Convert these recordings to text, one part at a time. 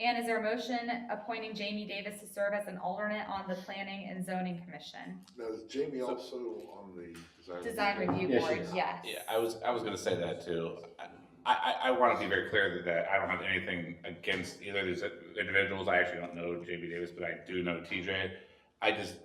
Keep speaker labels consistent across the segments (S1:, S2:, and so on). S1: And is there a motion appointing Jamie Davis to serve as an alternate on the Planning and Zoning Commission?
S2: Now, is Jamie also on the design?
S1: Design Review
S3: Yeah, she
S1: Board,
S3: is.
S1: yes.
S4: Yeah, I was, I was gonna say that too. I, I, I wanna be very clear that- that I don't have anything against either of these individuals. I actually don't know JB Davis, but I do know TJ. I just,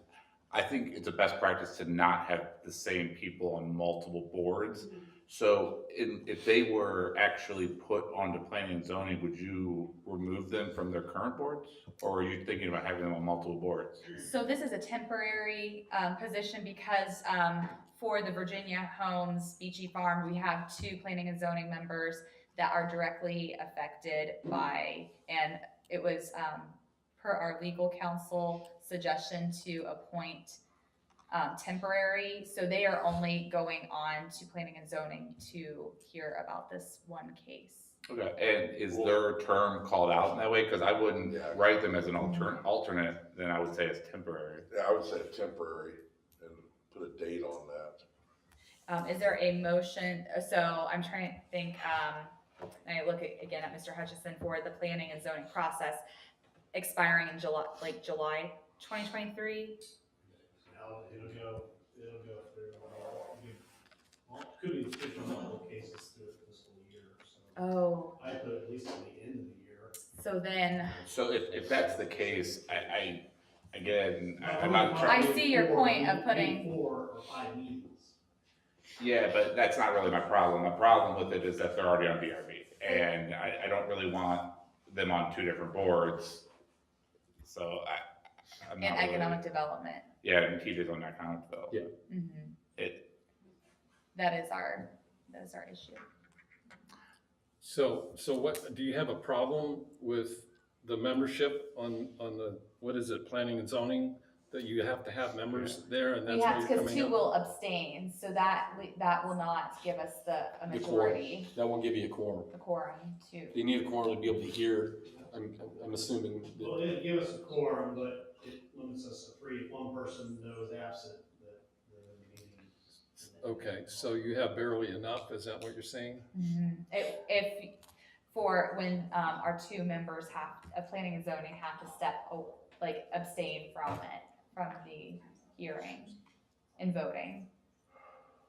S4: I think it's a best practice to not have the same people on multiple boards. So in, if they were actually put onto planning and zoning, would you remove them from their current boards? Or are you thinking about having them on multiple boards?
S1: So this is a temporary um, position because um, for the Virginia Homes Beachy Farm, we have two planning and zoning members that are directly affected by, and it was um, per our legal counsel suggestion to appoint um, temporary, so they are only going on to planning and zoning to hear about this one case.
S4: Okay, and is their term called out in that way? Because I wouldn't
S2: Yeah.
S4: write them as an altern, alternate, then I would say it's temporary.
S2: Yeah, I would say temporary and put a date on that.
S1: Um, is there a motion, uh, so I'm trying to think, um, and I look a- again at Mr. Hutchison for the planning and zoning process expiring in July, like July twenty twenty-three?
S5: Now, it'll go, it'll go through, uh, we- well, could be fifty multiple cases through the fiscal year, so.
S1: Oh.
S5: I put at least to the end of the year.
S1: So then,
S4: So if, if that's the case, I, I, again, I- I'm not
S1: I
S4: trying,
S1: see your point of putting-
S5: Four or five meetings.
S4: yeah, but that's not really my problem. My problem with it is that they're already on VRB. And I, I don't really want them on two different boards. So I, I'm
S1: in
S4: not really,
S1: economic development,
S4: yeah, and TJ's on economic though.
S3: Yeah.
S1: mhm,
S4: It,
S1: that is our, that is our issue.
S6: So, so what, do you have a problem with the membership on, on the, what is it, planning and zoning? That you have to have members there and that's
S1: We
S6: where
S1: have,
S6: you're
S1: cause
S6: coming
S1: two
S6: up?
S1: will abstain, so that, that will not give us the
S3: The quorum,
S1: majority,
S3: that won't give you a quorum.
S1: the quorum to.
S3: You need a quorum to be able to hear, I'm, I'm assuming. that-
S5: Well, it'd give us a quorum, but it limits us to three, if one person knows absent, that, the meeting. is-
S6: Okay, so you have barely enough, is that what you're saying?
S1: Mhm. If, if, for when, um, our two members have, of planning and zoning have to step, o- like abstain from it, from the hearing and voting.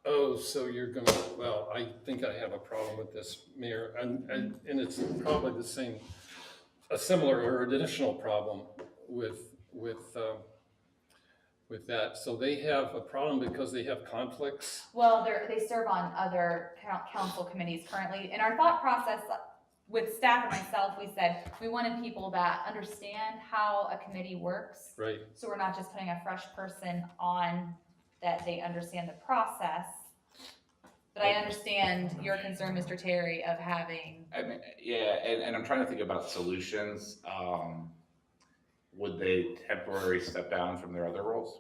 S6: Oh, so you're gonna, well, I think I have a problem with this, Mayor, and, and, and it's probably the same, a similar or additional problem with, with, um, with that. So they have a problem because they have conflicts?
S1: Well, they're, they serve on other coun- council committees currently, and our thought process with staff and myself, we said, we wanted people that understand how a committee works.
S6: Right,
S1: So we're not just putting a fresh person on that they understand the process. But I understand your concern, Mr. Terry, of having,
S4: I mean, yeah, and, and I'm trying to think about solutions. Um, would they temporarily step down from their other roles?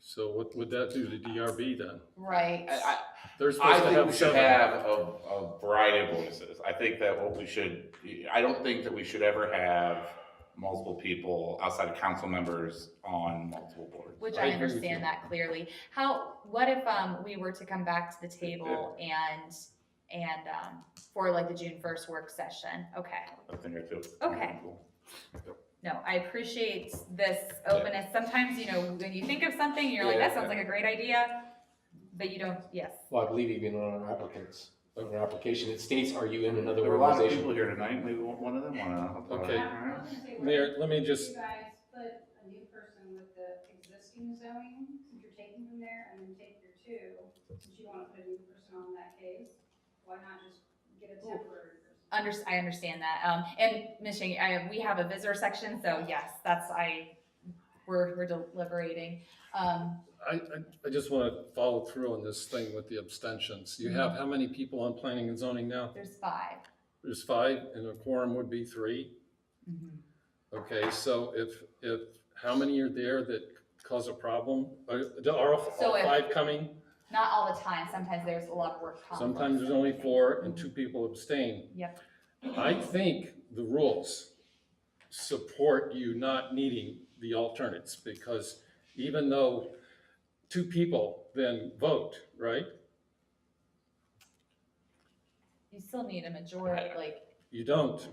S6: so what would that do to DRB then?
S1: right,
S4: I, I,
S6: They're
S4: I
S6: supposed to
S4: think we
S6: have
S4: should
S6: seven.
S4: have a, a variety of voices. I think that what we should, I don't think that we should ever have multiple people outside of council members on multiple boards.
S1: which
S6: I
S1: I
S6: agree with
S1: understand
S6: you.
S1: that clearly. How, what if, um, we were to come back to the table and, and, um, for like the June first work session? Okay.
S4: I think I feel.
S1: Okay. No, I appreciate this openness. Sometimes, you know, when you think of something, you're like,
S4: Yeah,
S1: that sounds like a great idea, but you don't, yes.
S3: Well, I believe even on our applicants, on our application, it states, are you in another
S4: There were a lot of people
S3: organization?
S4: here tonight, maybe one of them wanna.
S6: Okay.
S7: I was gonna say, why
S6: Mayor, let me
S7: don't
S6: just,
S7: You guys put a new person with the existing zoning, since you're taking from there, and then take your two, since you wanna put a new person on that case, why not just get a temporary person?
S1: Under, I understand that. Um, and Ms. Shang, I, we have a visitor section, so yes, that's, I, we're, we're deliberating. Um,
S6: I, I, I just want to follow through on this thing with the abstentions. You have how many people on planning and zoning now?
S1: there's 5
S6: There's five, and a quorum would be three. Okay, so if, if, how many are there that cause a problem? Are, are all
S1: So
S6: all
S1: if-
S6: five coming?
S1: Not all the time. Sometimes there's a lot of work. conflicts.
S6: Sometimes there's only four and two people abstain.
S1: Yep.
S6: I think the rules support you not needing the alternates because even though two people then vote, right?
S1: You still need a majority, like,
S6: You don't.